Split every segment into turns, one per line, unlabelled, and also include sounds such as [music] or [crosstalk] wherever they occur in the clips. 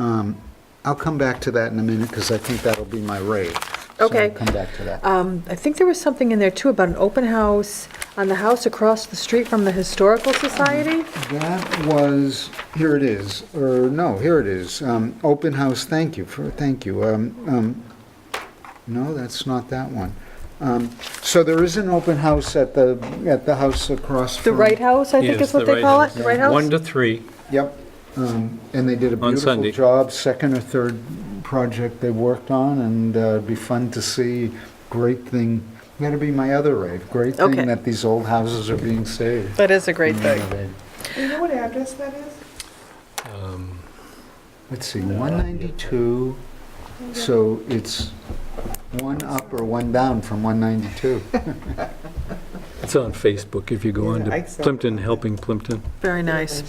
Um, I'll come back to that in a minute, because I think that'll be my rave. So
Okay.
I'll Come back to that.
Um, I think there was something in there too about an open house on the house across the street from the Historical Society.
That was, here it is, or no, here it is. Um, Open house, thank you for, thank you. Um, um, No, that's not that one. Um, So there is an open house at the, at the house across
The
from...
Right House, I think
Yes,
is what
the
they call it,
House.
the Right House?
One to three.
Yep, um, and they did a
On
beautiful
Sunday.
job, second or third project they worked on, and uh, it'd be fun to see, great thing, that'd be my other rave, great
Okay.
thing that these old houses are being saved.
That is a great
Renovated.
You know what address that is?
Um,
Let's see, 192, so it's one up or one down from 192.
It's on Facebook if you go on
Yeah, I
to
saw
Plimpton Helping Plimpton.
Very nice.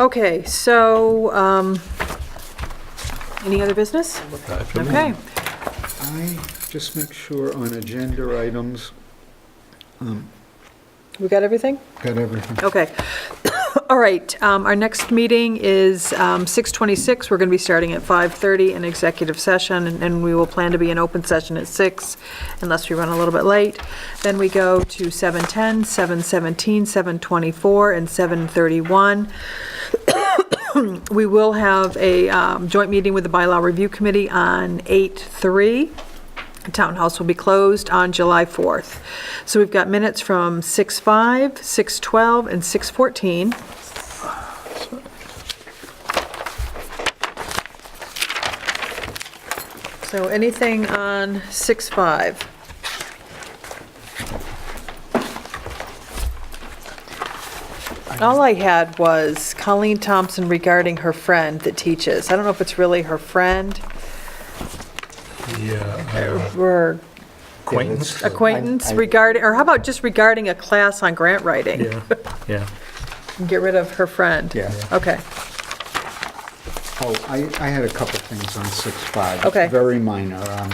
Okay, so, um, any other business?
Not for me.
Okay.
I just make sure on agenda items, um,
We got everything?
got everything.
Okay. [coughs] All right, um, our next meeting is um, 6:26. We're going to be starting at 5:30 in executive session, and- and we will plan to be in open session at 6 unless we run a little bit late. Then we go to 7:10, 7:17, 7:24, and 7:31. [coughs] We will have a um, joint meeting with the Bylaw Review Committee on 8:03. The Townhouse will be closed on July 4th. So we've got minutes from 6:05, 6:12, and 6:14. So anything on 6:05? All I had was Colleen Thompson regarding her friend that teaches. I don't know if it's really her friend
Yeah. uh,
or
Acquaintance?
uh, I-
acquaintance
I-
regarding, or how about just regarding a class on grant writing?
Yeah, yeah.
Get rid of her friend?
Yeah.
Okay,
Oh, I, I had a couple things on 6.5.
Okay.
Very minor. Um,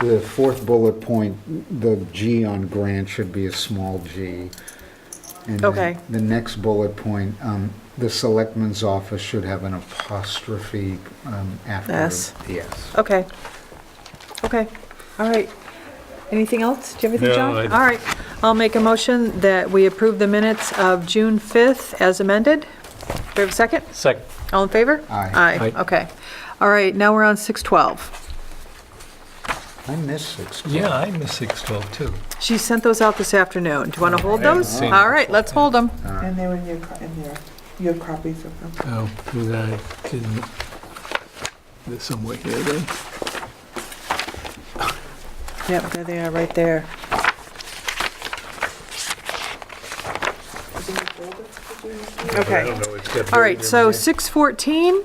The fourth bullet point, the G on grant should be a small g. And then
Okay.
The next bullet point, um, the selectman's office should have an apostrophe um, after.
S.
Yes.
okay. Okay, all right. Anything else? Do you have anything,
No,
John?
I-
All right, I'll make a motion that we approve the minutes of June 5th as amended. Do we have a second?
Second.
All in favor?
Aye.
Aye,
Aye.
okay. All right, now we're on 6:12.
I missed 6.5.
Yeah, I miss 612 too.
She sent those out this afternoon. Do you want to hold
I haven't
those?
seen
All
them.
right, let's hold them.
And they were in your, co- in your, you have copies of them.
Oh, that didn't, there's somewhere here then.
Yep, there they are, right there.
Oh,
Okay, all right, so 6:14,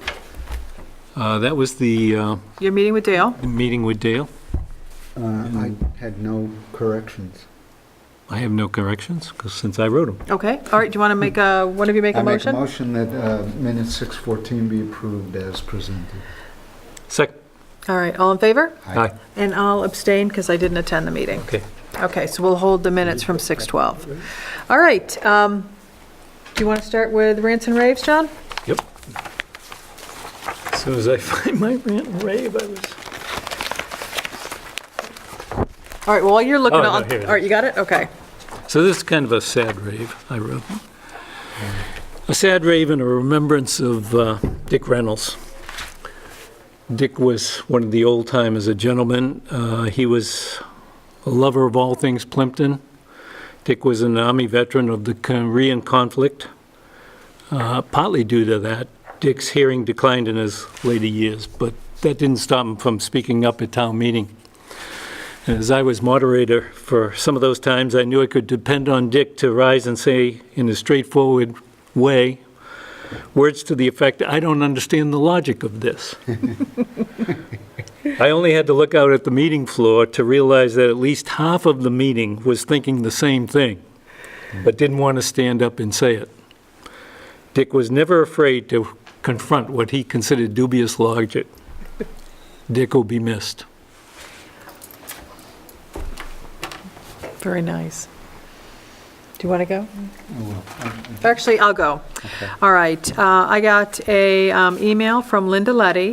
Uh, That was the uh,
you're meeting with Dale.
meeting with Dale.
Uh, I had no corrections.
I have no corrections, 'cause since I wrote them.
Okay, all right, do you want to make a, one of you make a
I
motion?
make a motion that uh, minute 6.14 be approved as presented.
Second.
All right, all in favor?
Aye.
Aye.
And I'll abstain because I didn't attend the meeting.
Okay.
Okay, so we'll hold the minutes from 6:12. All right, um, do you want to start with rants and raves, John?
Yep. As soon as I [laughs] find my rant and rave, I was.
All right, well, while you're looking,
Oh, no,
I'll-
here it
all right, you got it? Okay.
So this is kind of a sad rave I wrote. A sad rave in a remembrance of uh, Dick Reynolds. Dick was one of the old timers, a gentleman. Uh, He was a lover of all things Plimpton. Dick was an Army veteran of the Korean conflict. Uh, Partly due to that, Dick's hearing declined in his later years, but that didn't stop him from speaking up at town meeting. And As I was moderator for some of those times, I knew I could depend on Dick to rise and say, in a straightforward way, words to the effect, "I don't understand the logic of this." [laughs] I only had to look out at the meeting floor to realize that at least half of the meeting was thinking the same thing, but didn't want to stand up and say it. Dick was never afraid to confront what he considered dubious logic. Dick will be missed.
Very nice. Do you want to go?
I will.
Actually, I'll go. All right, uh, I got a um, email from Linda Letty,